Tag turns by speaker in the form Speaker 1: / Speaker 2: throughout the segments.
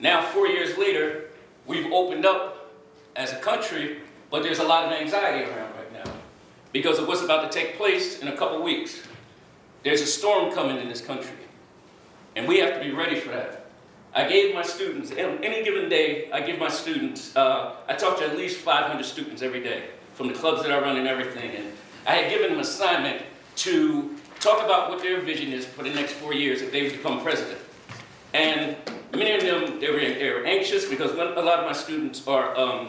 Speaker 1: Now, four years later, we've opened up as a country, but there's a lot of anxiety around right now because of what's about to take place in a couple weeks. There's a storm coming in this country, and we have to be ready for that. I gave my students, on any given day, I give my students, uh, I talk to at least 500 students every day from the clubs that I run and everything. And I had given them assignment to talk about what their vision is for the next four years if they become president. And many of them, they were, they were anxious because one- a lot of my students are, um,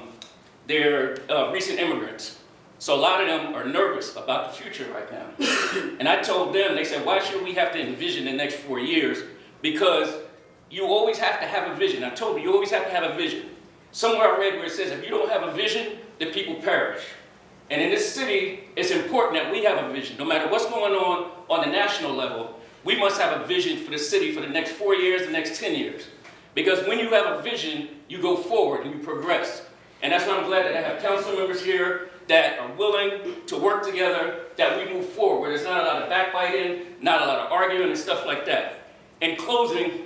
Speaker 1: they're uh, recent immigrants. So a lot of them are nervous about the future right now. and I told them, they said, why should we have to envision the next four years? Because you always have to have a vision. I told you, you always have to have a vision. Somewhere I read where it says, if you don't have a vision, the people perish. And in this city, it's important that we have a vision. No matter what's going on on the national level, we must have a vision for the city for the next four years, the next 10 years. Because when you have a vision, you go forward and you progress. And that's why I'm glad that I have council members here that are willing to work together, that we move forward. There's not a lot of backbiting, not a lot of arguing and stuff like that. In closing,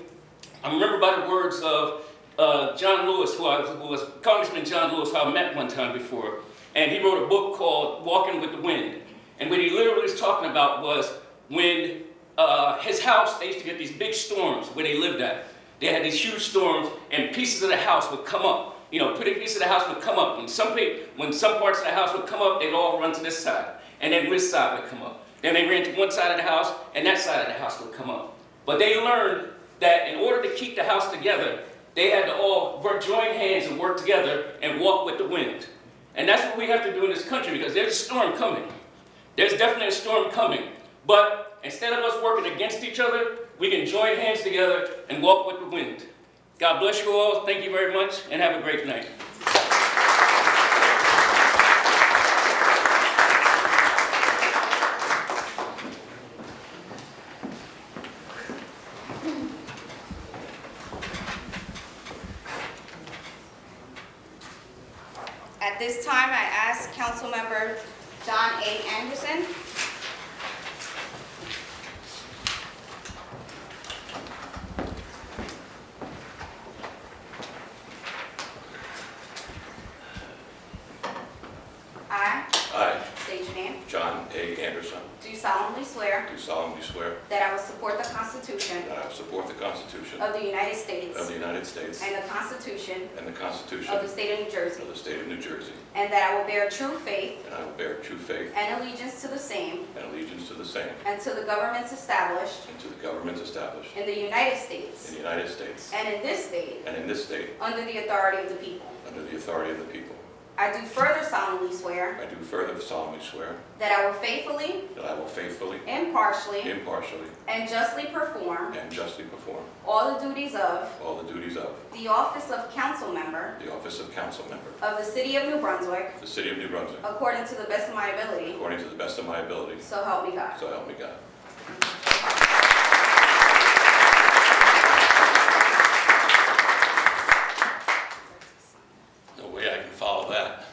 Speaker 1: I remember by the words of uh, John Lewis, who, I was, who was Congressman John Lewis, who I met one time before, and he wrote a book called Walking with the Wind. And what he literally was talking about was when uh, his house, they used to get these big storms where they lived at. They had these huge storms, and pieces of the house would come up. You know, pretty pieces of the house would come up. When some, pe- when some parts of the house would come up, they'd all run to this side, and then this side would come up. Then they ran to one side of the house, and that side of the house would come up. But they learned that in order to keep the house together, they had to all work, join hands and work together and walk with the wind. And that's what we have to do in this country because there's a storm coming. There's definitely a storm coming. But instead of us working against each other, we can join hands together and walk with the wind. God bless you all. Thank you very much and have a great night.
Speaker 2: At this time, I ask Councilmember John A. Anderson. I
Speaker 3: I,
Speaker 2: state your name.
Speaker 3: John A. Anderson,
Speaker 2: Do solemnly swear
Speaker 3: do solemnly swear
Speaker 2: that I will support the Constitution
Speaker 3: that I will support the Constitution
Speaker 2: of the United
Speaker 3: of
Speaker 2: States
Speaker 3: the United States
Speaker 2: and the Constitution
Speaker 3: and the Constitution
Speaker 2: of the
Speaker 3: of
Speaker 2: State of New Jersey,
Speaker 3: the State of New Jersey,
Speaker 2: and that I will bear true faith
Speaker 3: and I will bear true faith
Speaker 2: and allegiance to the same
Speaker 3: and allegiance to the same
Speaker 2: and to the governments established
Speaker 3: and to the governments established
Speaker 2: in the United
Speaker 3: in
Speaker 2: States
Speaker 3: the United States
Speaker 2: and in this state
Speaker 3: and in this state
Speaker 2: under the authority of the people.
Speaker 3: under the authority of the people.
Speaker 2: I do further solemnly swear
Speaker 3: I do further solemnly swear
Speaker 2: that I will faithfully,
Speaker 3: that I will faithfully,
Speaker 2: impartially,
Speaker 3: impartially,
Speaker 2: and justly perform
Speaker 3: and justly perform
Speaker 2: all the duties of
Speaker 3: all the duties of
Speaker 2: the office of council member
Speaker 3: the office of council member
Speaker 2: of the City of New Brunswick
Speaker 3: of the City of New Brunswick
Speaker 2: according to the best of my ability,
Speaker 3: according to the best of my ability,
Speaker 2: so help me God.
Speaker 3: so help me God. No way I can follow that.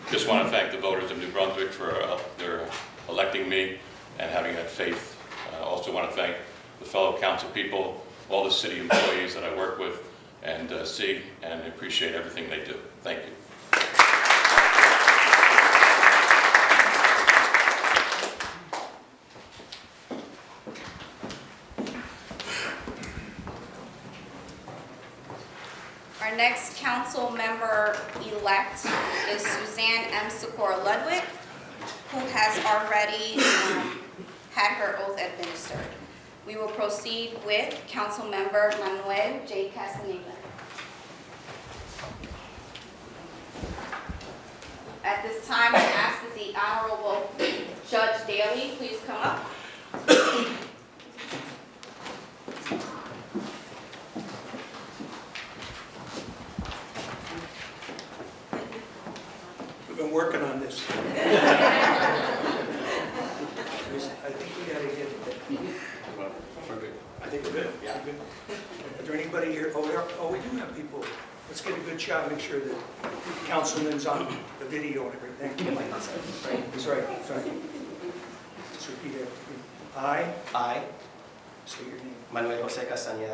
Speaker 3: Just want to thank the voters of New Brunswick for uh, their electing me and having that faith. I also want to thank the fellow council people, all the city employees that I work with and uh, see, and appreciate everything they do. Thank you.
Speaker 2: Our next council member-elect is Suzanne M. Sikora Ludwig, who has already um, had her oath administered. We will proceed with council member Manuel J. Castaneda. At this time, I ask that the Honorable Judge Daley please come up.
Speaker 4: We've been working on this. I think we gotta get it.
Speaker 5: I think we're good, yeah.
Speaker 4: Is there anybody here? Oh, there, oh, we do have people. Let's get a good shot, make sure that councilman's on the video and everything. That's right, that's right. Just repeat after me. I
Speaker 5: I,
Speaker 4: say your name.
Speaker 5: Manuel Jose Castañeda,